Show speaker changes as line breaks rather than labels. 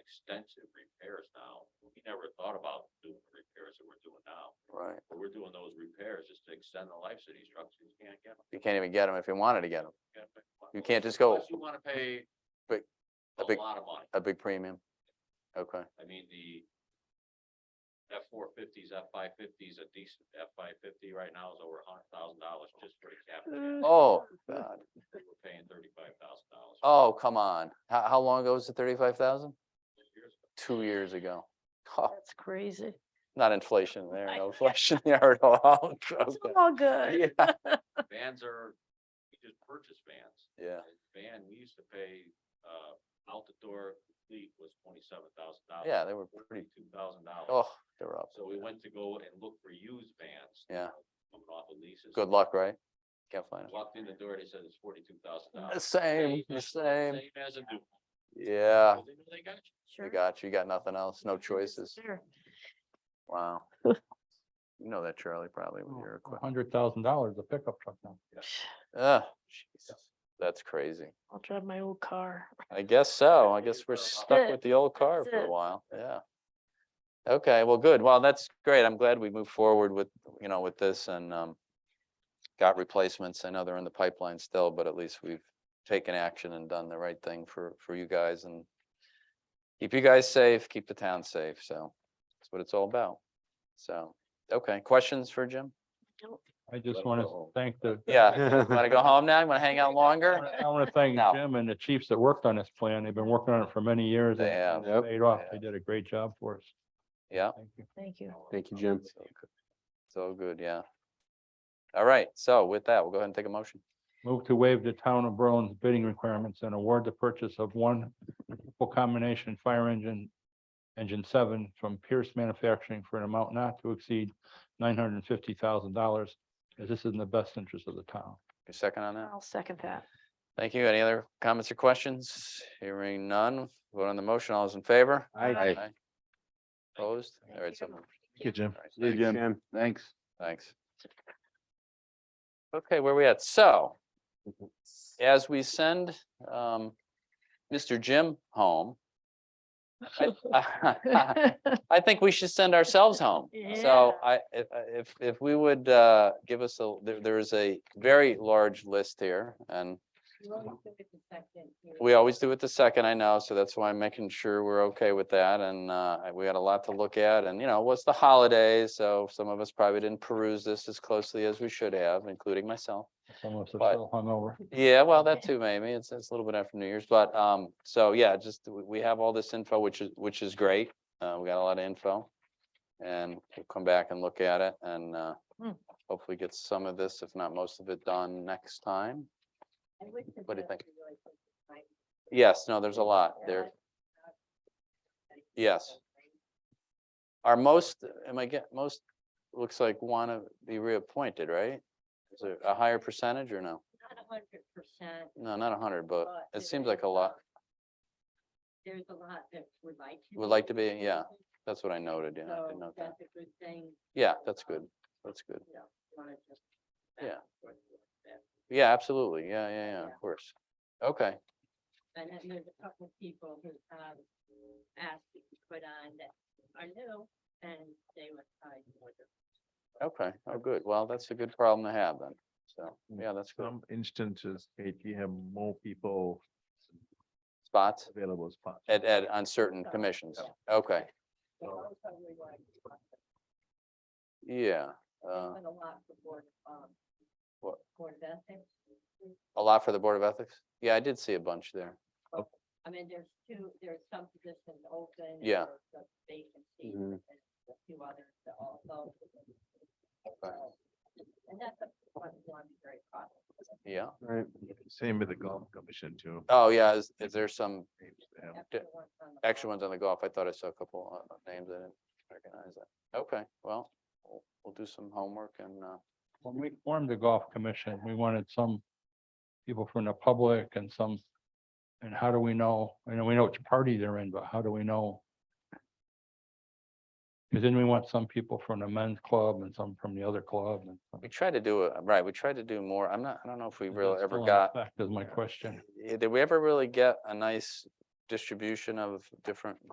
extensive repairs now. We never thought about doing the repairs that we're doing now.
Right.
But we're doing those repairs just to extend the life of these trucks. You can't get them.
You can't even get them if you wanted to get them. You can't just go-
Unless you wanna pay
Big-
a
a big-
lot of money.
A big premium. Okay,
I mean, the F four fifties, F five fifties, a decent F five fifty right now is over a hundred thousand dollars just for the cap. and
Oh.
oh, God,
We're paying thirty-five thousand dollars.
oh, come on. How, how long ago was the thirty-five thousand?
Years ago.
Two years ago. Oh,
That's crazy.
not inflation there,
I-
no inflation there at all.
It's
Okay.
all good.
Yeah,
Vans are, we just purchased vans.
yeah,
And Van, we used to pay, uh, out the door fleet was twenty-seven thousand dollars.
yeah, they were pretty,
Forty-two thousand dollars.
oh, they were up.
So we went to go and look for used vans.
Yeah.
Coming off of leases.
Good luck, right? Can't find them.
Walked in the door, they said it's forty-two thousand
The
dollars.
Same, the
Same
same,
as a new. one.
yeah.
Well, they know They got you.
You
Sure.
got, you you got nothing else, no
Yes,
choices.
sir.
Wow. You know that Charlie probably
Oh,
with your equipment.
Hundred thousand dollars a pickup truck now.
Ah, Jesus, that's crazy.
I'll drive my old car.
I guess so. I
you
guess we're
go.
stuck
it.
with the old car
That's
for a
it.
while, yeah. Okay, well, good. Well, that's great. I'm glad we moved forward with, you know, with this and um. Got replacements. I know they're in the pipeline still, but at least we've taken action and done the right thing for for you guys and. Keep you guys safe, keep the town safe, so that's what it's all about. So, okay, questions for Jim?
I just
Let's
want
go home.
to thank the,
Yeah, wanna go home now? You wanna hang out longer?
I want to thank
No.
Jim and the chiefs that worked on this plan. They've been working on it for many years.
They
and
have.
it's Paid off.
They
They did a great job for us.
Yeah.
Thank
Thank you.
you.
Thank you, Jim.
So Oh, good. So good, yeah. All right, so with that, we'll go ahead and take a motion.
Move to waive the town of Berlin's bidding requirements and award the purchase of one full combination fire engine, engine seven from Pierce Manufacturing for an amount not to exceed nine hundred and fifty thousand dollars. As this is in the best interest of the town.
Your second on that?
I'll second that.
Thank you. Any other comments or questions? Hearing none. Vote on the motion. All those in favor?
Aye.
Aye. Opposed? All right, so.
Thank
moved.
you.
All
Jim.
right,
See you,
thanks.
Jim. Thanks.
Thanks. Okay, where we at? So
Mm-hmm.
as we send um Mr. Jim home, I- I think we should send ourselves home. So
Yeah.
I, if, uh, if, if we would, uh, give us a, there, there is a very large list here and we always do it the second, I know, so that's why I'm making sure we're okay with that and, uh, I- we got a lot to look at and, you know, what's the holidays, so some of us probably didn't peruse this as closely as we should have, including myself.
Some of us are
But-
still hungover.
Yeah, well, that
Okay.
too, maybe. It's, it's a little bit after New Year's, but, um, so yeah, just, we, we have all this info, which is, which is great. Uh, we got a lot of info. And we'll come back and look at it and, uh,
Hmm.
hopefully get some of this, if not most of it done next time. What do you think? Yes, no, there's a lot there. Yes. Are most, am I get, most, looks like wanna be reappointed, right? Is it a higher percentage or no?
Not a hundred percent,
No, not a hundred, but
but.
it
there
seems like
is
a lot.
There's a lot that would like. to
Would like to be,
on
yeah,
it,
That's what I noted, yeah, I
so
did note that.
That's a good thing,
Yeah, that's good. That's good.
you know, you wanna just.
Yeah.
balance what you expect.
Yeah, absolutely. Yeah, yeah, yeah,
Yeah.
of course. Okay,
And then there's a couple of people who, um, asked to be put on that are new, and they would probably more than.
okay. Oh, good. Well, that's a good problem to have then. So,
Mm.
yeah, that's good.
Some instances, Kate, you have more people
Spots
available spots.
at, at, on certain commissions. Okay,
But also we want to keep up with-
yeah.
they
Uh,
want a lot for board, um.
What?
Board of ethics.
a lot for the Board of Ethics? Yeah, I did see a bunch there.
I mean, there's two, there's some positions open. and
Yeah. Mm-hmm.
there's some Vacancies
Mhm.
and a few others that also. So, And that's a one, one very problem.
Yeah.
Right. Same with the golf commission too.
Oh, yeah. Is, is there some
They have-
D- extra ones on the golf? I thought I saw a couple uh, of names. I didn't recognize that. Okay, well, we'll- we'll do some homework and, uh,
When we formed the golf commission, we wanted some people from the public and some, and how do we know, I know we know which party they're in, but how do we know? Because then we want some people from the men's club and some from the other club and. some-
we tried to do, a right, we tried to do more. I'm not, I don't know if we
Is
really
that
ever
still in
got
effect Is my question.
Yeah, Did we ever really get a nice distribution of different